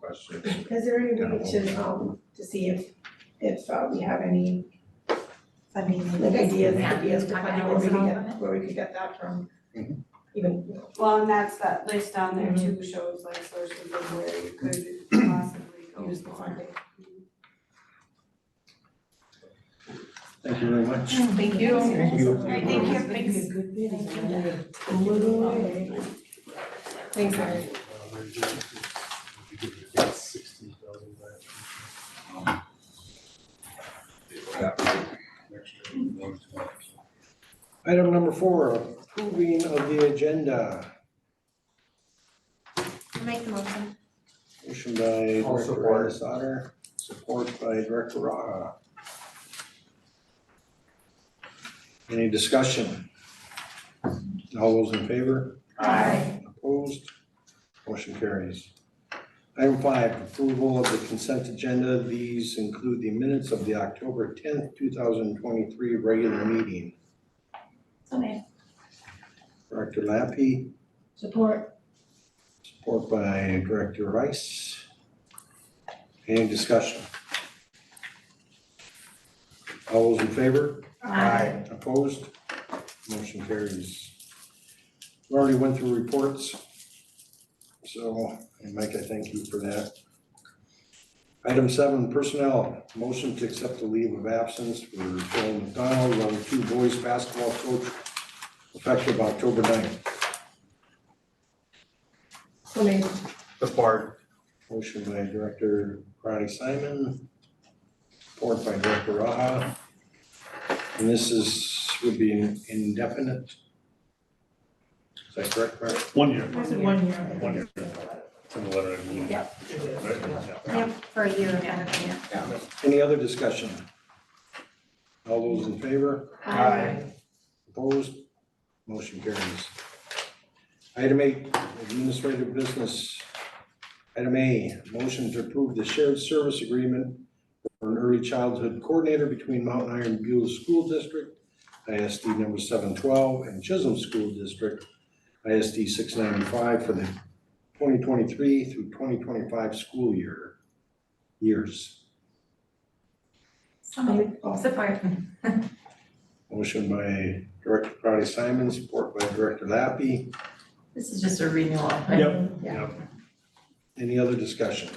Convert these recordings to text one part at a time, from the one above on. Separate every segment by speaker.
Speaker 1: question.
Speaker 2: Is there any way to, um, to see if, if uh, we have any,
Speaker 3: funding.
Speaker 2: like, ideas, ideas to
Speaker 3: Talk
Speaker 2: find out
Speaker 3: about
Speaker 2: where we
Speaker 3: what's
Speaker 2: could
Speaker 3: wrong
Speaker 2: get,
Speaker 3: with
Speaker 2: where we could get that from?
Speaker 3: Mm-hmm.
Speaker 1: Mhm.
Speaker 2: Even, you know,
Speaker 4: Well, and that's that list down there too shows like sources of where you could possibly go
Speaker 2: use the
Speaker 4: for.
Speaker 2: funding.
Speaker 1: Thank you very much.
Speaker 3: it. Thank you.
Speaker 1: Thank you. All
Speaker 3: right, thank you. Thanks.
Speaker 2: Thanks, Erin.
Speaker 5: Sixteen thousand
Speaker 1: Item number four, approving of the agenda.
Speaker 3: Make the motion.
Speaker 1: Motion by
Speaker 5: I'll
Speaker 1: Director
Speaker 5: support.
Speaker 1: Ennis Otter, support by Director Raha. Any discussion? All those in favor?
Speaker 3: Aye.
Speaker 1: Opposed? Motion carries. Item five, approval of the consent agenda. These include the minutes of the October tenth, two thousand twenty-three regular meeting.
Speaker 3: So made.
Speaker 1: Director Lappy.
Speaker 3: Support.
Speaker 1: Support by Director Rice. Any discussion? All those in favor?
Speaker 3: Aye.
Speaker 1: Opposed? Motion carries. We already went through reports. So, and Mike, I thank you for that. Item seven, personnel, motion to accept the leave of absence for Joel McDonald, level two boys basketball coach, effective October 9th.
Speaker 2: So maybe
Speaker 5: Support.
Speaker 1: Motion by Director Ronnie Simon, support by Director Raha. And this is, would be indefinite. Is that correct, Mark?
Speaker 5: One year,
Speaker 2: there's a one year. I think.
Speaker 5: One year. it's in the letter. I mean.
Speaker 3: Yeah.
Speaker 5: Right? Yeah.
Speaker 3: Yep, for a year and a half.
Speaker 1: Any other discussion? All those in favor?
Speaker 3: Aye.
Speaker 1: Opposed? Motion carries. Item eight, administrative business. Item A, motion to approve the shared service agreement for an early childhood coordinator between Mountain Iron Buell School District, ISD number seven twelve, and Chisholm School District, ISD six ninety-five for the twenty twenty-three through twenty twenty-five school year, years.
Speaker 3: So moved.
Speaker 2: Oh,
Speaker 3: Support.
Speaker 1: Motion by Director Crowdy Simon, support by Director Lappy.
Speaker 6: This is just a renewal, right?
Speaker 5: Yep.
Speaker 1: Any other discussion?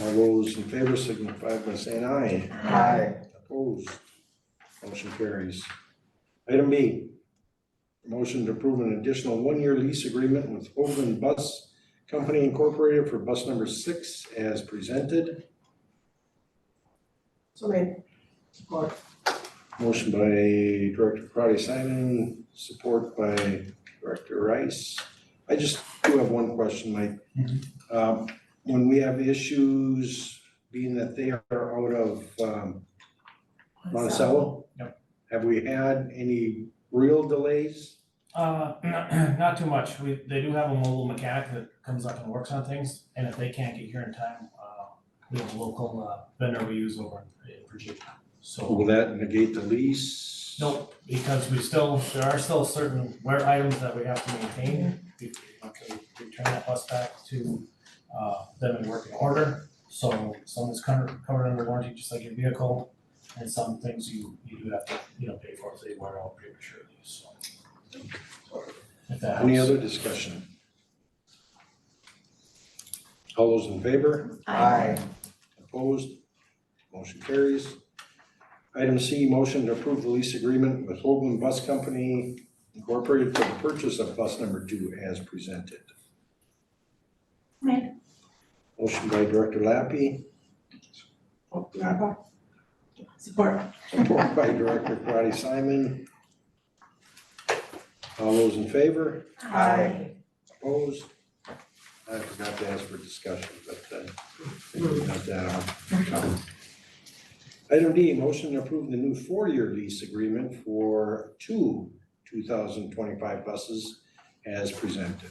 Speaker 1: All those in favor signify by saying aye.
Speaker 6: Aye.
Speaker 1: Opposed? Motion carries. Item B, motion to approve an additional one-year lease agreement with Overland Bus Company Incorporated for bus number six as presented.
Speaker 2: So maybe. Support.
Speaker 1: Motion by Director Crowdy Simon, support by Director Rice. I just do have one question, Mike. Um, when we have issues, being that they are out of, um, Monticello?
Speaker 7: Yep.
Speaker 1: Have we had any real delays?
Speaker 7: Uh, not too much, we, they do have a mobile mechanic that comes up and works on things, and if they can't get here in time, uh, we have a local uh, vendor we use over in in Virginia. So,
Speaker 1: Will that negate the lease?
Speaker 7: nope, because we still, there are still certain wear items that we have to maintain. We, we return that bus back to, uh, them in working order, so some is covered, covered under warranty, just like your vehicle. And some things you, you do have to, you know, pay for if they wear out prematurely, so. If that
Speaker 1: Any
Speaker 7: helps.
Speaker 1: other discussion? All those in favor?
Speaker 3: Aye.
Speaker 1: Opposed? Motion carries. Item C, motion to approve the lease agreement with Holden Bus Company Incorporated for the purchase of bus number two as presented.
Speaker 3: Made.
Speaker 1: Motion by Director Lappy,
Speaker 2: Oh, Nava. Support.
Speaker 1: support by Director Karati Simon. All those in favor?
Speaker 3: Aye.
Speaker 1: Opposed? I forgot to ask for discussion, but uh, I didn't have that on. Item D, motion to approve the new four-year lease agreement for two two thousand twenty-five buses as presented.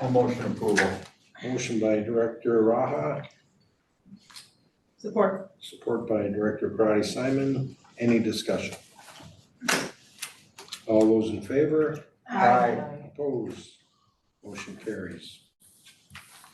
Speaker 5: All motion approval.
Speaker 1: Motion by Director Raha,
Speaker 2: Support.
Speaker 1: support by Director Karati Simon. Any discussion? All those in favor?
Speaker 3: Aye.
Speaker 1: Opposed? Motion carries.